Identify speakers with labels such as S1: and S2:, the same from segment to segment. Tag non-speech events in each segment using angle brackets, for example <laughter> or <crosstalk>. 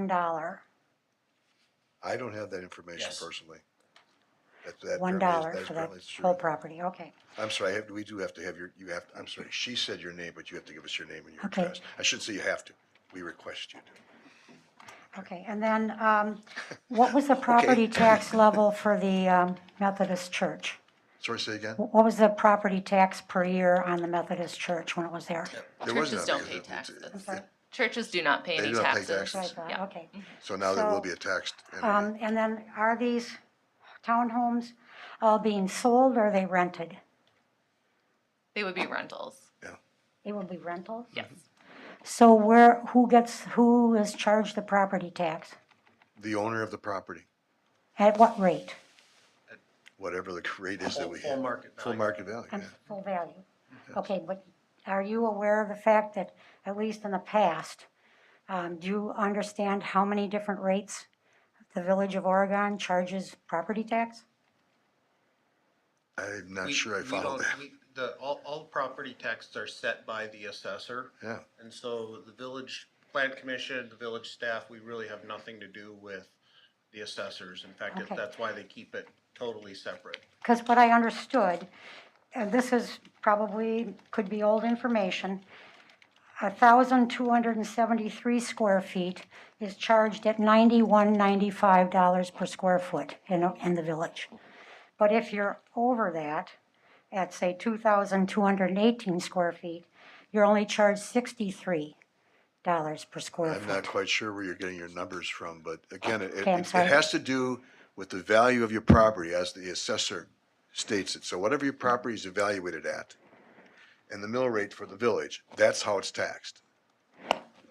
S1: one dollar.
S2: I don't have that information
S3: Yes.
S2: personally. That- that
S1: One
S2: apparently is-
S1: dollar
S2: that
S1: for that
S2: apparently is true.
S1: whole property, okay.
S2: I'm sorry, I have- we do have to have your, you have, I'm sorry, she said your name, but you have to give us your name and your
S1: Okay.
S2: address. I should say you have to. We request you to.
S1: Okay, and then, um, what
S2: <laughs>
S1: was the property tax level for the, um, Methodist church?
S2: Sorry, say again?
S1: Wh- What was the property tax per year on the Methodist church when it was there?
S2: There was none
S4: Churches don't pay
S2: because it's-
S4: taxes.
S1: I'm sorry,
S4: Churches do not pay
S2: They
S4: any
S2: do not pay
S4: taxes.
S1: that's what I
S2: taxes.
S1: thought,
S4: Yeah.
S1: okay.
S2: So now there will
S1: So,
S2: be a taxed entity.
S1: Um, and then are these townhomes all being sold or are they rented?
S4: They would be rentals.
S1: They will be rentals?
S4: Yes.
S1: So where, who gets, who is charged the property tax?
S2: The owner of the property,
S1: At what rate?
S2: whatever the rate is that
S3: Full
S2: we
S3: full
S2: have.
S3: market
S2: Full
S3: value.
S2: market value,
S1: On
S2: yeah.
S1: full value? Okay, but are you aware of the fact that, at least in the past, um, do you understand how many different rates the Village of Oregon charges property tax?
S2: I'm not
S3: We-
S2: sure I
S3: we
S2: followed
S3: don't-
S2: that.
S3: we- The, all, all property taxes are set by the assessor.
S2: Yeah.
S3: And so the village plan commission, the village staff, we really have nothing to do with the assessors. In fact,
S1: Okay.
S3: that's why they keep it totally separate.
S1: Because what I understood, and this is probably, could be old information, 1,273 square feet is charged at $91.95 per square foot in, in the village. But if you're over that, at say 2,218 square feet, you're only charged $63 per square
S2: I'm not
S1: foot.
S2: quite sure where you're getting your numbers from, but again, it, it
S1: Okay, I'm
S2: it
S1: sorry.
S2: has to do with the value of your property as the assessor states it. So whatever your property is evaluated at and the mill rate for the village, that's how it's taxed,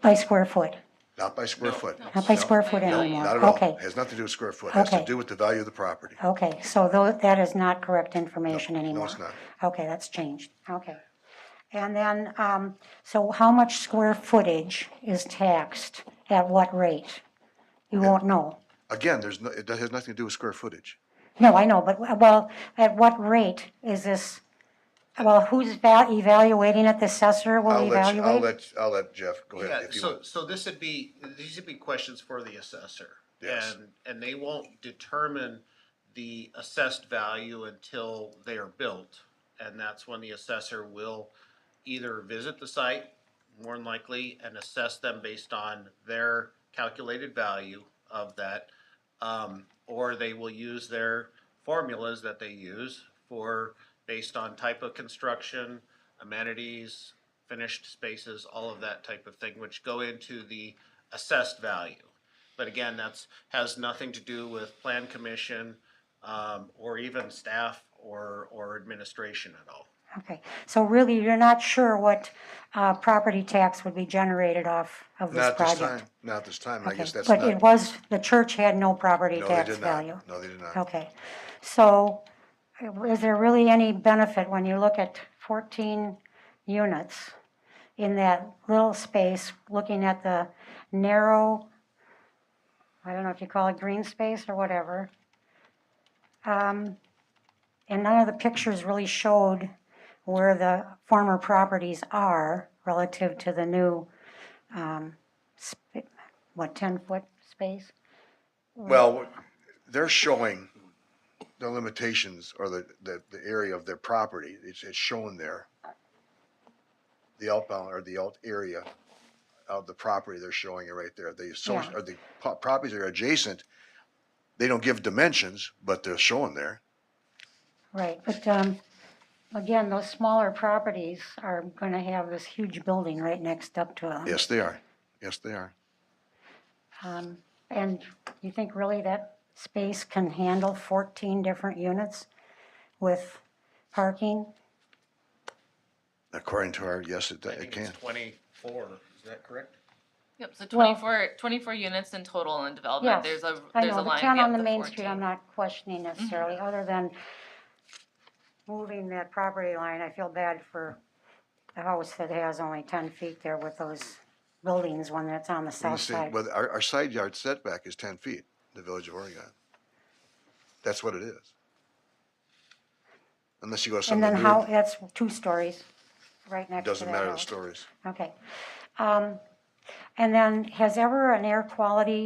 S1: By square foot,
S2: not by square foot.
S1: not by
S2: No,
S1: square foot
S2: no,
S1: anymore.
S2: Not at
S1: Okay.
S2: all. Has nothing to do with square foot. Has to
S1: Okay.
S2: do with the value of the property.
S1: Okay, so tho- that is not correct information anymore?
S2: No, it's not.
S1: Okay, that's changed, okay. And then, um, so how much square footage is taxed at what rate? You won't know.
S2: Again, there's no, it has nothing to do with square footage.
S1: No, I know, but, well, at what rate is this, well, who's val- evaluating it, the assessor
S2: I'll
S1: will
S2: let, you- I'll
S1: evaluate?
S2: let, I'll let Jeff go ahead
S3: Yeah,
S2: if you
S3: so,
S2: want.
S3: so this would be, these would be questions for the assessor.
S2: Yes.
S3: And, and they won't determine the assessed value until they are built. And that's when the assessor will either visit the site, more than likely, and assess them based on their calculated value of that. Um, or they will use their formulas that they use for, based on type of construction, amenities, finished spaces, all of that type of thing, which go into the assessed value. But again, that's, has nothing to do with plan commission, um, or even staff or, or administration at all.
S1: Okay, so really, you're not sure what, uh, property tax would be generated off of this
S2: Not this
S1: project?
S2: time, not this time. and I
S1: Okay,
S2: guess that's
S1: But
S2: not,
S1: it
S2: no,
S1: was, the church had no property
S2: they
S1: tax
S2: did
S1: value?
S2: not. No, they did not.
S1: Okay, so uh, is there really any benefit when you look at 14 units in that little space, looking at the narrow, I don't know if you call it green space or whatever? Um, And none of the pictures really showed where the former properties are relative to the new, um, sp- what, 10-foot space?
S2: Well, they're showing the limitations or the, the, the area of their property. It's, it's shown there. The outbound or the out area of the property, they're showing it right there. The, so,
S1: Yeah.
S2: or the po- properties that are adjacent. They don't give dimensions, but they're showing there.
S1: Right, but um, again, those smaller properties are going to have this huge building right next up to them.
S2: Yes, they are. Yes, they are.
S1: Um, And you think really that space can handle 14 different units with parking?
S2: According to our, yes, it,
S3: I
S2: it
S3: think it's
S2: can.
S3: twenty-four, is that correct?
S4: Yep, so
S1: Well-
S4: 24, 24 units in total in
S1: Yes,
S4: development. There's a,
S1: I
S4: there's a
S1: know, the
S4: line.
S1: town
S4: yeah,
S1: on the
S4: with
S1: main street,
S4: 14.
S1: I'm not questioning
S4: Mm-hmm.
S1: necessarily, other than moving that property line, I feel bad for the house that has only 10 feet there with those buildings when it's on the
S2: When you
S1: south
S2: say-
S1: side.
S2: Well, our, our side yard setback is ten feet, the Village of Oregon. That's what it is. Unless you go to some
S1: And then how,
S2: weird,
S1: that's two stories right next to that
S2: doesn't matter the
S1: house.
S2: stories.
S1: Okay. Um, And then, has ever an air quality